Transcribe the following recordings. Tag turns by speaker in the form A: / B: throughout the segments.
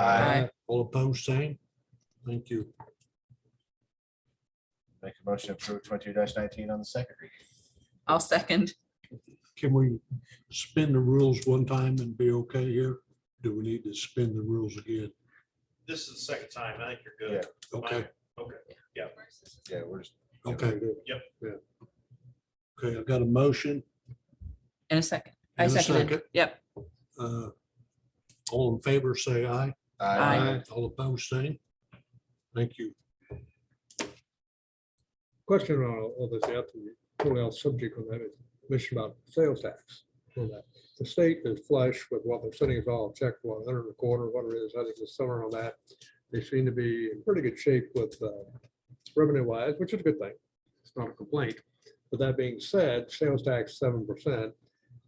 A: Aye.
B: Uh, All opposed, same. Thank you.
C: Make a motion to approve twenty-two nineteen on the second reading.
A: I'll second.
B: Can we spin the rules one time and be okay here? Do we need to spin the rules again?
D: This is the second time. I think you're good.
B: Okay,
C: Yeah, we're just,
B: okay. good.
D: Yep.
B: Yeah. Okay, I've got a motion.
A: In a second. I
B: and a
A: seconded. Yep.
B: Uh, All in favor, say aye.
A: Aye.
C: I
B: All opposed, same. Thank you.
E: question on all this, after you pull out subject on that, is mentioned about sales tax. on that. The state is flush with what they're sending us all, check one hundred and a quarter, whatever it is, I think the summer on that. They seem to be in pretty good shape with revenue wise, which is a good thing. It's not a complaint. But that being said, sales tax seven percent.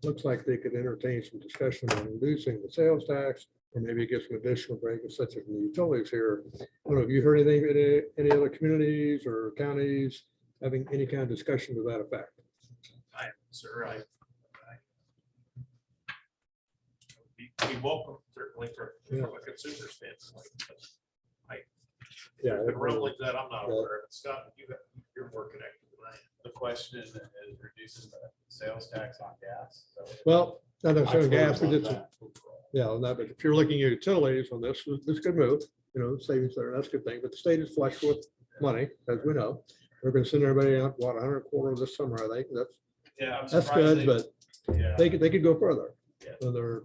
E: Looks like they could entertain some discussion on reducing the sales tax or maybe get some additional breaks such as the utilities here. I don't know, have you heard anything, any, any other communities or counties having any kind of discussion to that effect.
D: I, sir, I. I- We we welcome certainly for
E: Yeah.
D: from a consumer standpoint. but
E: Yeah.
D: The rumblings that I'm not
E: Yeah.
D: aware of. Scott, you got, you're more connected than I am. The question is reducing the sales tax on gas.
E: Well, not necessarily gas, we did, some- yeah, on that, but if you're looking at utilities on this, this could move, you know, savings there, that's a good thing, but the state is flush with money, as we know. They're gonna send everybody out, what, a hundred quarter this summer, I think, that's,
D: Yeah. I'm
E: that's
D: surprised
E: good,
D: they-
E: but
D: Yeah.
E: they could, they could go further.
D: Yeah.
E: Than they're,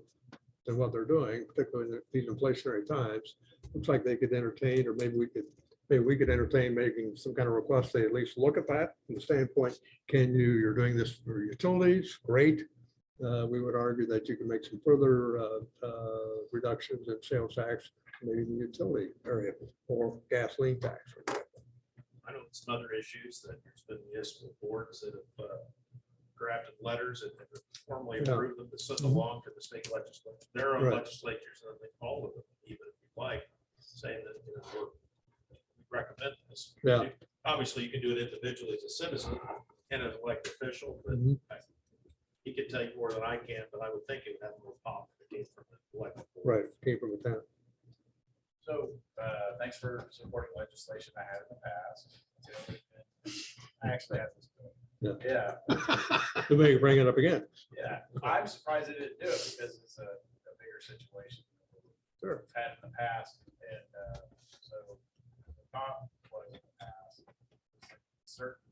E: than what they're doing, particularly in these inflationary times, looks like they could entertain, or maybe we could, maybe we could entertain making some kind of request, they at least look at that from the standpoint, can you, you're doing this for utilities, great. Uh, we would argue that you can make some further, uh, uh, reductions in sales tax, maybe in the utility area, or gasoline tax. for example.
D: I know some other issues that there's been municipal boards that have uh, drafted letters and have formally
E: Yeah.
D: approved them to send along to the state legislature, their own
E: Right.
D: legislatures, and they all of them, even if you like, saying that, you know, we're- we recommend this.
E: Yeah.
D: Obviously, you can do it individually as a citizen and as an elected official, but
E: Mhm.
D: he can tell you more than I can, but I would think it would have more pop if it came from the elected. board.
E: Right, came from the town.
F: So, uh, thanks for supporting legislation I had in the past. I actually have this. bill.
E: Yeah.
F: Yeah,
E: They may bring it up again.
F: yeah. I'm surprised they didn't do it because it's a, a bigger situation. Sure. Had in the past and, uh, so the thought was in the past. Certain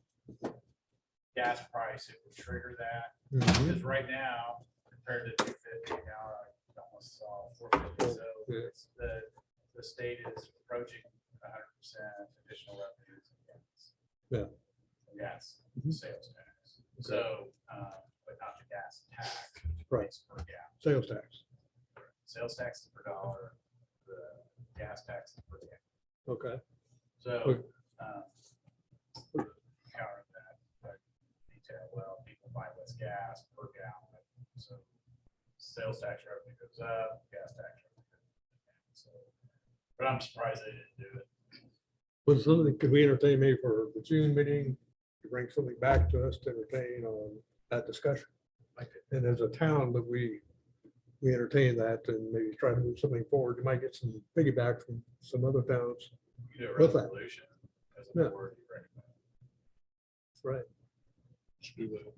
F: gas price, it would trigger that.
E: Mhm.
D: Mm-hmm.
F: Because right now, compared to two fifty, now I almost saw four fifty, so
E: Yeah.
F: it's the, the state is approaching hundred percent additional revenues. and gas.
E: Yeah.
F: Gas,
E: Mhm.
F: sales tax, so, uh, but not the gas tax.
E: Right.
F: it's Per gallon,
E: Sales tax,
F: sales tax is per dollar, the gas tax is per gallon,
E: okay.
F: so. um, Counter that, but detail, well, people buy less gas per gallon, so sales tax revenue goes up, gas tax. revenue goes down, So, But I'm surprised they didn't do it.
E: Was something, could we entertain maybe for the June meeting, to bring something back to us to entertain on that discussion? And as a town, that we, we entertain that and maybe try to move something forward, you might get some piggyback from some other towns.
F: You do a
E: What's that?
F: resolution as
E: Yeah.
F: a board, you recommend.
E: Right.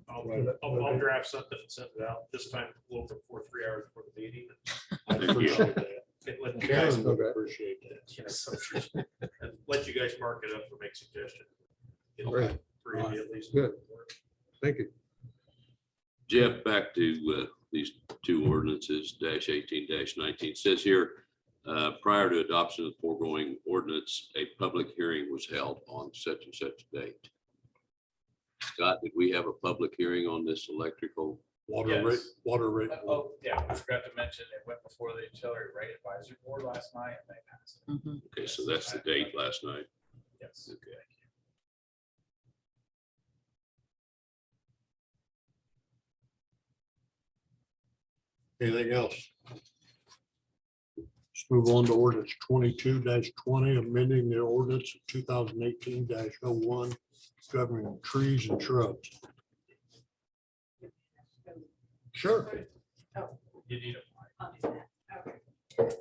D: I'll,
E: Right.
D: I'll- I'll draft something and send it out this time, a little before three hours before the meeting.
B: I appreciate that.
D: And let you guys
B: Karen would appreciate
D: Yes, I'm sure. And Let you guys mark it up or make suggestions. It'll
B: Okay.
D: be Three of you at least.
E: Good. Thank you.
G: Jeff, back to uh, these two ordinances, dash eighteen, dash nineteen, says here, uh, prior to adoption of the foregoing ordinance, a public hearing was held on such and such date. Scott, did we have a public hearing on this electrical?
B: Water rate,
F: Yes.
B: water rate.
F: Uh, Oh, yeah, I forgot to mention, it went before the utility rate advisory board last night and they passed it.
A: Mhm.
G: Okay, so that's the date last night.
F: Yes.
G: Okay.
B: Anything else? Let's move on to ordinance twenty-two twenty, amending the ordinance of two thousand eighteen oh one governing trees and shrubs. Sure.
F: You need a
H: I'll do that. Okay.